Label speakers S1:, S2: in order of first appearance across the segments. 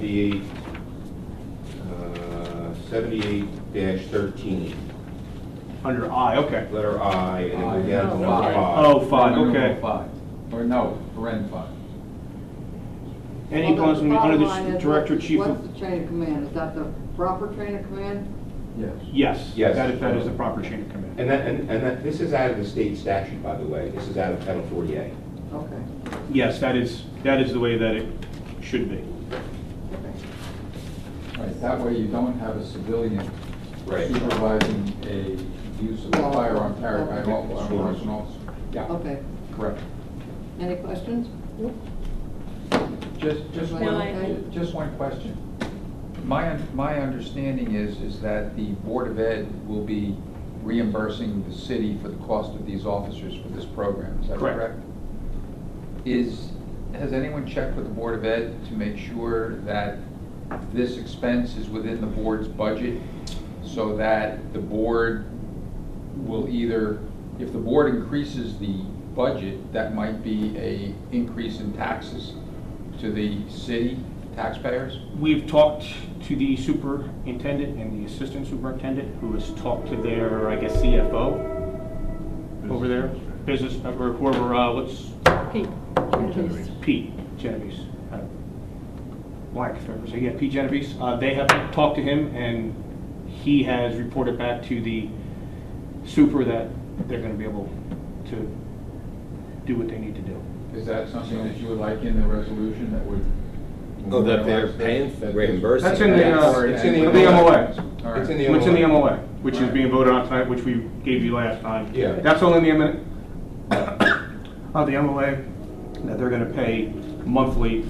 S1: 78, uh, 78-13,
S2: Under I, okay.
S1: letter I, and then go down to
S3: Oh,
S1: number
S3: I.
S1: five.
S2: Oh, five,
S3: Renewable
S2: okay.
S3: Five, or no, paren five.
S2: Any
S4: Well,
S2: plans
S4: the
S2: to be under the
S4: bottom line
S2: s-
S4: is
S2: director,
S4: what's-
S2: chief
S4: What's
S2: of,
S4: the chain of command? Is that the proper chain of command?
S3: Yes.
S2: yes.
S1: Yes.
S2: That is, that is the proper chain of command.
S1: And that, and and that, this is out of the state statute, by the way, this is out of Title 40A.
S4: Okay.
S2: Yes, that is, that is the way that it should be.
S4: okay.
S3: Right, that way you don't have a civilian
S1: Right.
S3: supervising a use of a
S4: No.
S3: firearm carried by an law
S1: Sure.
S3: enforcement officer. Yeah,
S4: Okay.
S3: correct.
S4: Any questions?
S3: Just, just
S4: No, I-
S3: one, just one question. My, un- my understanding is, is that the Board of Ed will be reimbursing the city for the cost of these officers for this program, is that
S2: Correct.
S3: correct? Is, has anyone checked with the Board of Ed to make sure that this expense is within the board's budget? So that the board will either, if the board increases the budget, that might be a increase in taxes to the city taxpayers?
S2: We've talked to the superintendent and the assistant superintendent, who has talked to their, I guess, CFO over there, business, or whoever, uh, what's,
S5: Pete.
S2: Pete Genovese. uh, Black, if I ever say, yeah, Pete Genovese. Uh, They have talked to him, and he has reported back to the super that they're going to be able to do what they need to do.
S3: Is that something that you would like in the resolution that would?
S6: Oh, that they're paying, reimbursing.
S2: That's in the, uh,
S1: it's
S3: Yes.
S1: in the
S2: I think I'm aware.
S3: All right.
S1: It's in the
S2: What's in the MOA, which is
S3: Alright.
S2: being voted on tonight, which we gave you last time.
S1: Yeah.
S2: That's only in the, M- of the MOA, that they're going to pay monthly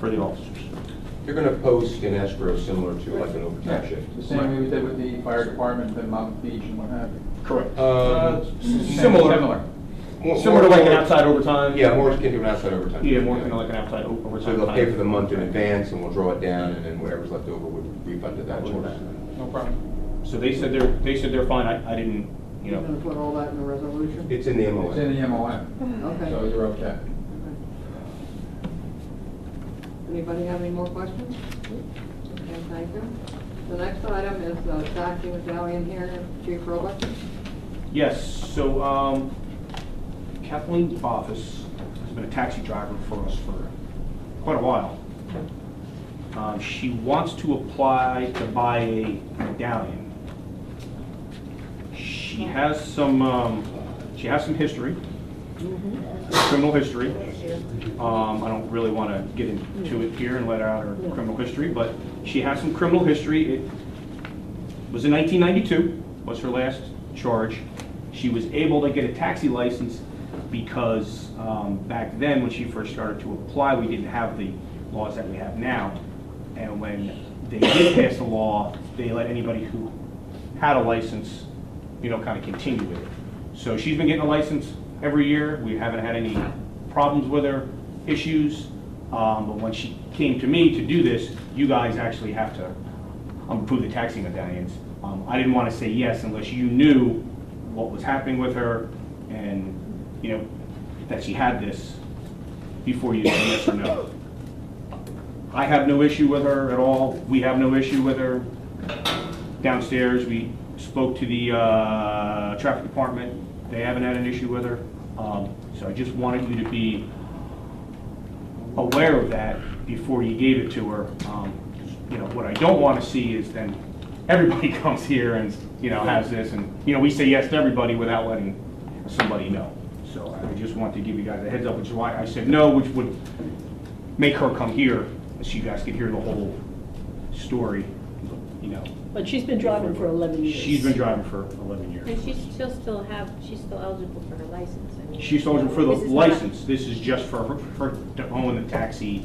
S2: for the officers.
S1: You're going to post an escrow similar to like an overtime shift.
S3: The same way we did with the fire department in Mountain Beach and what have you.
S2: Correct.
S1: Um,
S2: Similar.
S3: Similar.
S1: more-
S2: Similar to like an
S1: more-
S2: outside overtime.
S1: Yeah, more akin to an outside overtime.
S2: Yeah, more kind of like an outside o- overtime.
S1: So they'll pay for
S2: type.
S1: the month in advance, and we'll draw it down, and then whatever's left over would refund to that.
S3: No problem.
S2: So they said they're, they said they're fine, I, I didn't, you
S4: You're
S2: know.
S4: gonna put all that in the resolution?
S1: It's in the
S3: It's in
S1: MOA.
S3: the MOM, so
S4: Okay.
S3: you're okay.
S4: Anybody have any more questions? Okay, thank you. The next item is uh, Zach Umadeli in here, Chief Robot.
S2: Yes, so, um, Kathleen Bovis has been a taxi driver for us for quite a while. Um, she wants to apply to buy a medallion. She has some, um, she has some history, criminal history. Um, I don't really want to get into it here and let out her criminal history, but she has some criminal history. It was in 1992, was her last charge. She was able to get a taxi license because um, back then, when she first started to apply, we didn't have the laws that we have now. And when they did pass the law, they let anybody who had a license, you know, kind of continue with it. So she's been getting a license every year. We haven't had any problems with her, issues. Um, But when she came to me to do this, you guys actually have to um, approve the taxi medallions. Um, I didn't want to say yes unless you knew what was happening with her and, you know, that she had this before you said yes or no. I have no issue with her at all. We have no issue with her. Downstairs, we spoke to the uh, traffic department. They haven't had an issue with her. Um, So I just wanted you to be aware of that before you gave it to her. Um, You know, what I don't want to see is then everybody comes here and, you know, has this, and, you know, we say yes to everybody without letting somebody know. So I just want to give you guys a heads up, which is why I said no, which would make her come here, so you guys could hear the whole story, you know.
S5: But she's been driving for 11 years.
S2: She's been driving for 11 years.
S7: And she's, she'll still have, she's still eligible for her license. I mean,
S2: She's eligible for the
S7: this is not-
S2: license, this is just for her, her to own the taxi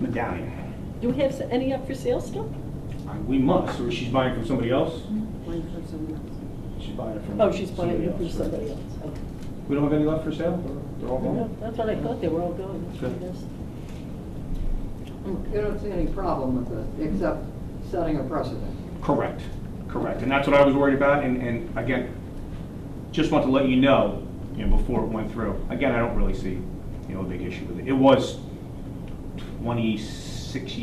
S2: medallion.
S5: Do we have any up for sale still?
S2: Uh, We must, or she's buying from somebody else? She's buying it from.
S5: Oh, she's buying it from
S2: else.
S5: somebody else. Okay.
S2: We don't have any left for sale? They're all
S5: No,
S2: gone?
S5: That's what I thought, they were all going.
S2: Good.
S5: Oh,
S4: You don't see any problem with this, except setting a precedent.
S2: Correct, correct. And that's what I was worried about, and, and again, just want to let you know, you know, before it went through. Again, I don't really see, you know, a big issue with it. It was 26 six